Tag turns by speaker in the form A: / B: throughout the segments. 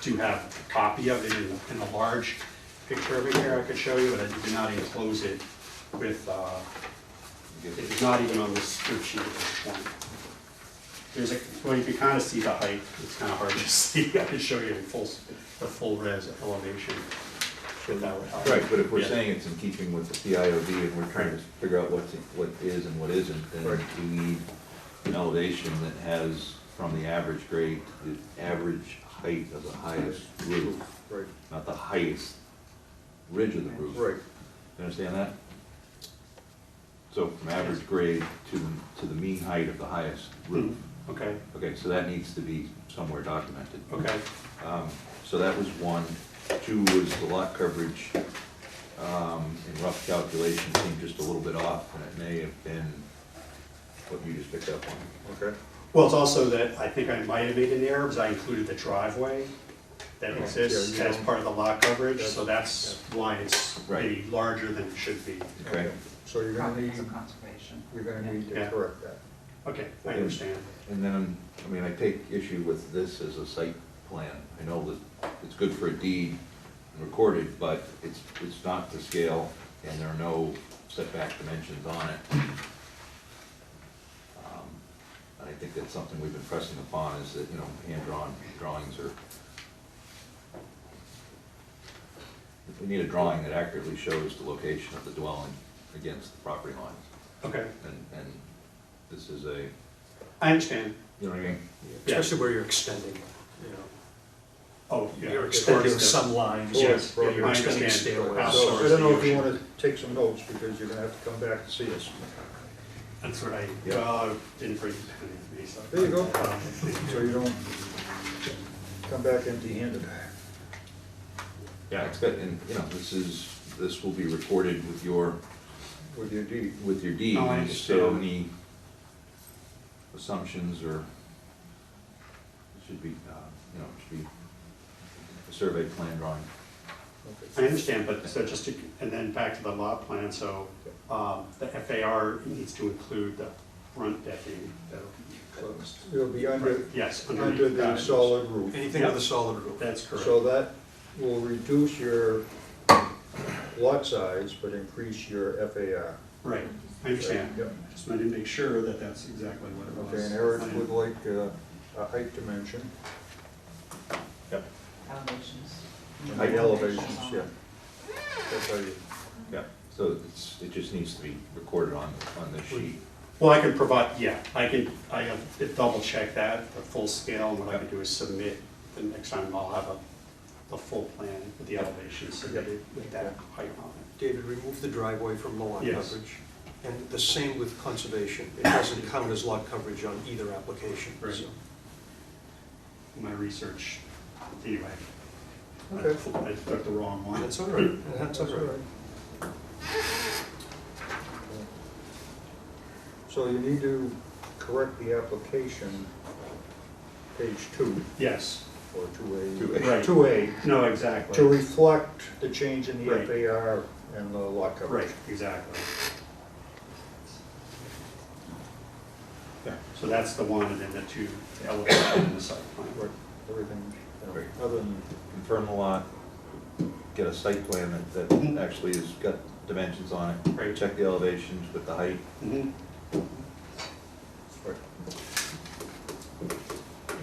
A: do have a copy of it in, in a large picture of it here I could show you, but I did not enclose it with, uh, it is not even on this script sheet at this point. There's a, well, you can kind of see the height, it's kind of hard to see, I could show you in full, s- the full res elevation, if that would help.
B: Right, but if we're
A: Yeah.
B: saying it's in keeping with the PIOD and we're trying to figure out what's, what is and what isn't, then
A: Right.
B: we need an elevation that has from the average grade to the average height of the highest roof,
C: Right,
B: not the highest ridge of the roof.
C: right,
B: You Understand that? So from average grade to, to the mean height of the highest roof.
A: Mm-hmm. Okay,
B: Okay, so that needs to be somewhere documented.
A: okay,
B: Um, So that was one. Two was the lot coverage, um, in rough calculation, seemed just a little bit off, and it may have been what you just picked up on.
C: okay.
A: well, it's also that, I think I might have made an error, because I included the driveway that
C: Yeah,
A: exists
C: you
A: as
C: don't-
A: part of the lot coverage, so that's why it's maybe
B: Right.
A: larger than it should be.
B: Okay?
C: So you're gonna need,
D: Properties of conservation.
C: you're gonna need to
A: Yeah.
C: correct that.
A: Okay, I
B: Yeah.
A: understand,
B: And then, I mean, I take issue with this as a site plan. I know that it's good for a deed and recorded, but it's, it's not to scale, and there are no setback dimensions on it. Um, And I think that's something we've been pressing upon, is that, you know, hand-drawn drawings are... We need a drawing that accurately shows the location of the dwelling against the property lines,
A: okay,
B: and, and this is a,
A: I understand,
B: you know what I mean?
A: Yeah.
E: Especially where you're extending, you know,
A: oh, yeah.
E: you're
A: it's
E: extending
A: towards the-
E: some lines, you're
A: Yes,
C: Yes,
A: yeah,
C: you're
A: I
E: extending
A: understand.
E: stairwells.
C: So
A: Outsource
C: I don't know if
A: the
C: you
A: usual.
C: wanna take some notes, because you're gonna have to come back to see us.
A: That's what I,
B: Yeah.
A: well, I didn't bring the pen with me, so.
C: There you go.
A: Um,
C: So you don't come back empty-handed.
B: Yeah, it's good, and, you know, this is, this will be recorded with your,
C: With your deed.
B: with your deed.
A: No, Oh, I
B: So
A: understand.
B: any assumptions or, should be, uh, you know, should be a survey plan drawing.
A: I understand, but so just to, and then back to the lot plan, so, um, the FAR needs to include the front decking that'll be closed.
C: It'll be under,
A: Yes, underneath.
C: under the
A: that.
C: solid roof.
E: anything with a solid roof.
A: That's correct.
C: So that will reduce your lot size, but increase your FAR.
A: Right, I understand.
C: Yep.
A: Just wanted to make sure that that's exactly what it was.
C: Okay, and Eric would like uh, a height dimension,
B: Yep.
D: Elevations.
C: height elevations, yeah. That's how you,
B: Yeah, so it's, it just needs to be recorded on, on this sheet.
A: Well, I can provide, yeah, I can, I have to double check that, the full scale, and what I can do is submit, the next time I'll have a, the full plan with the elevation submitted with that height on it.
E: David, remove the driveway from the lot
A: Yes.
E: coverage. And the same with conservation, it doesn't count as lot coverage on either application,
A: Right.
E: so.
A: my research, anyway.
C: Okay.
A: I took the wrong one.
E: That's all right, that's all
C: that's all
E: right.
C: right. So you need to correct the application, page two,
A: Yes,
C: or two
B: Two
C: A.
B: A.
A: Right.
C: Two A,
A: no,
C: to
A: exactly.
C: reflect the change in the
A: Right.
C: FAR and the lot coverage.
A: Right, exactly. Yeah, so that's the one, and then the two elevation and the site plan.
C: Right, everything, you know,
B: Right.
C: other than,
B: Confirm the lot, get a site plan that,
A: Mm-hmm.
B: that actually has got dimensions on it.
A: Right.
B: Check the elevations with the height.
A: Mhm.
C: right.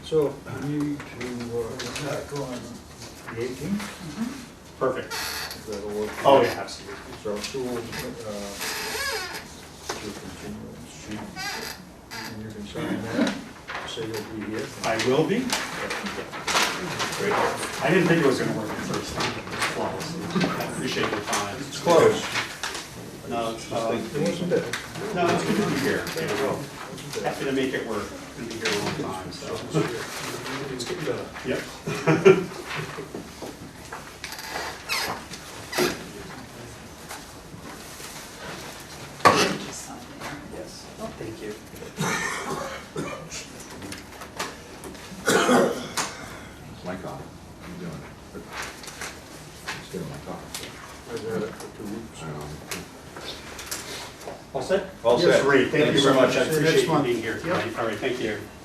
C: So we need to, uh, back on the eighteenth,
A: Perfect.
C: if that'll work.
A: Oh, yeah, absolutely.
C: So two, uh, two continuance sheets, and you can sign that, say you'll be here.
A: I will be.
B: Great.
A: I didn't think it was gonna work at first, flawlessly. I appreciate your time.
C: It's close,
A: No, it's, uh,
C: it wasn't it? It
A: no, it's good to be here. You know,
C: wasn't it?
A: Happy to make it work. Been here a long time, so.
E: It's getting better.
A: Yep.
D: Just something.
E: Yes. Thank you.
B: It's my coffee. I'm doing it. It's doing my coffee.
C: I've had it for two weeks.
A: All set?
B: All
C: Yes,
B: set.
A: Great, thank you very much, I
C: Thanks so much. See you
A: appreciate
C: next
A: you
C: month.
A: being here tonight. All right, thank you.